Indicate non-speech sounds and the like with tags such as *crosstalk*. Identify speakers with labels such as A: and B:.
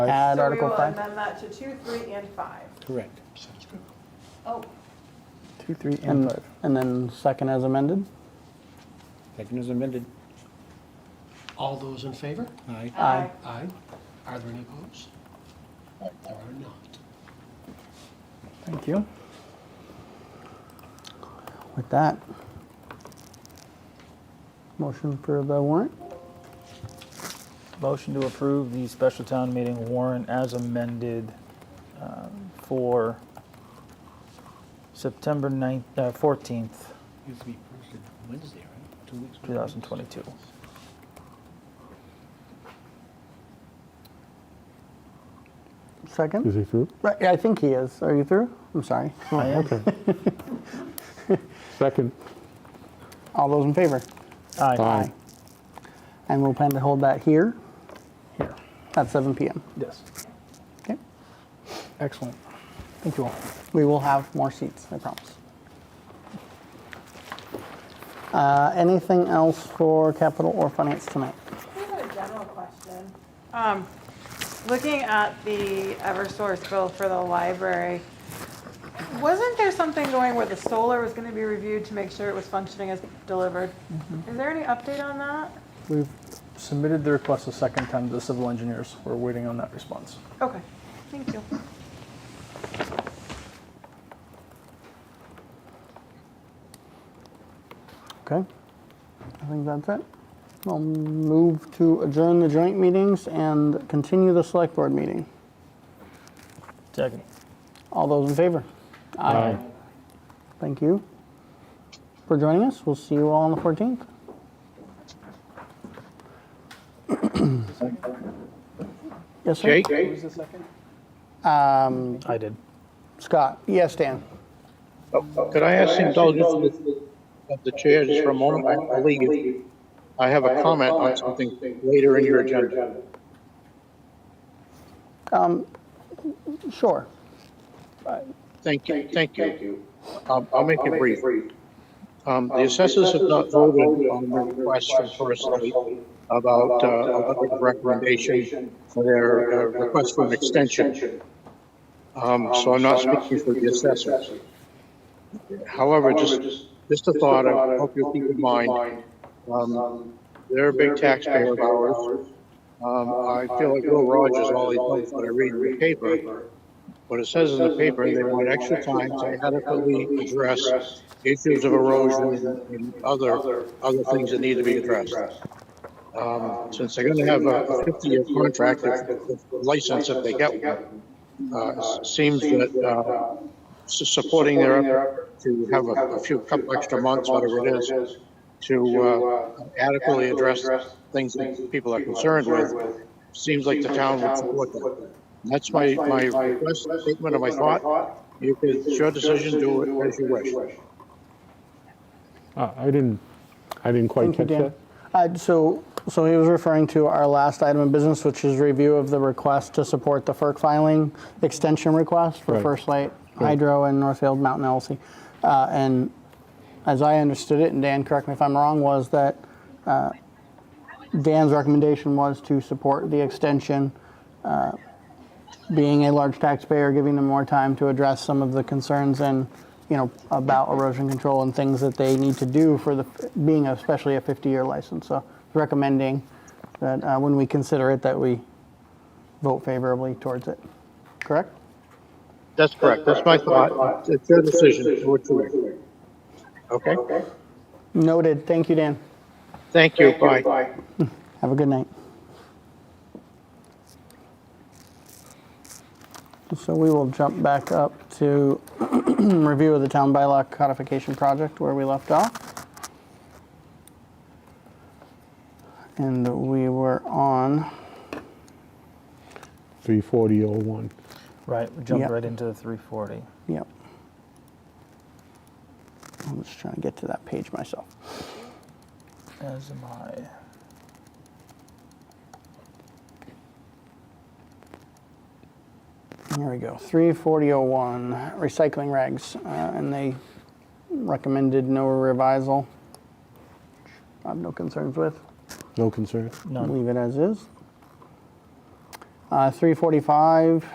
A: Add
B: So we
A: Article
B: will
A: 5?
B: amend that to two, three, and five.
C: Correct.
B: Oh,
A: Two, three, and five. And then second as amended?
C: Second is amended.
D: All those in favor?
C: Aye.
A: Aye.
D: Aye. Are there any opposed? There are not.
A: Thank you. With that, motion for the warrant?
E: Motion to approve the special town meeting warrant as amended um, for September 9th, uh, 14th,
C: Used to be posted Wednesday, right? Two weeks.
E: 2022.
A: Second?
F: Is he through?
A: Right, I think he is. Are you through? I'm sorry.
E: I am.
F: Second.
A: All those in favor?
E: Aye.
A: And we'll plan to hold that here? Here. At 7 PM.
E: Yes.
A: Okay? Excellent. Thank you all. We will have more seats, I promise. Uh, Anything else for capital or finance tonight?
B: I have a general question. Um, Looking at the Eversource bill for the library, wasn't there something going where the solar was going to be reviewed to make sure it was functioning as delivered?
A: Mm-hmm.
B: Is there any update on that?
G: We've submitted the request a second time to the civil engineers. We're waiting on that response.
B: Okay, thank you.
A: Okay. I think that's it. I'll move to adjourn the joint meetings and continue the select board meeting.
E: Second.
A: All those in favor?
F: Aye.
A: Thank you for joining us. We'll see you all on the 14th. Yes, sir?
G: Who's the second?
A: Um,
E: I did.
A: Scott, yes, Dan?
H: Could I ask the indulgence of the chair just for a moment? I believe I have a comment on something later in your agenda.
A: Sure.
H: Thank you, thank you. Um, I'll make it brief. Um, The assessors have not voted on the request from First Light about uh, about the recommendation for their uh, request for an extension. Um, So I'm not speaking for the assessors. However, just, just a thought, I hope you keep in mind, um, they're a big taxpayer of ours. Um, I feel like Will Rogers always knows what I read in the paper. What it says in the paper, they want extra time to adequately address issues of erosion and other, other things that need to be addressed. Um, since they're gonna have a fifty-year contract, if- if license if they get one, uh, it seems that, uh, su- supporting their effort to have a a few couple extra months, whatever it is, to uh, adequately address things that people are concerned with, seems like the town would support that. And That's my, my request, statement of my thought. You could, it's your decision, do it as you wish.
F: Uh, I didn't, I didn't quite
A: Thank you,
F: catch
A: Dan.
F: that.
A: Uh, So, so he was referring to our last item of business, which is review of the request to support the FERC filing extension request for
F: Right.
A: First Light Hydro and Northfield Mountain LLC. Uh, And as I understood it, and Dan, correct me if I'm wrong, was that uh, Dan's recommendation was to support the extension, uh, being a large taxpayer, giving them more time to address some of the concerns and, you know, about erosion control and things that they need to do for the, being especially a 50-year license. So recommending that uh, when we consider it, that we vote favorably towards it. Correct?
H: That's correct, that's my thought. It's your decision, do what you wish. Okay?
A: Noted. Thank you, Dan.
H: Thank you, bye.
A: Have a good night. So we will jump back up to *clears throat* review of the town bylaw codification project where we left off. And we were on,
F: 34001.
E: Right, we
A: Yep.
E: jumped right into the 340.
A: yep. I'm just trying to get to that page myself.
E: As am I.
A: Here we go, 34001, recycling regs, uh, and they recommended no revisal. I have no concerns with.
F: No concern?
E: None.
A: Leave it as is. Uh, 345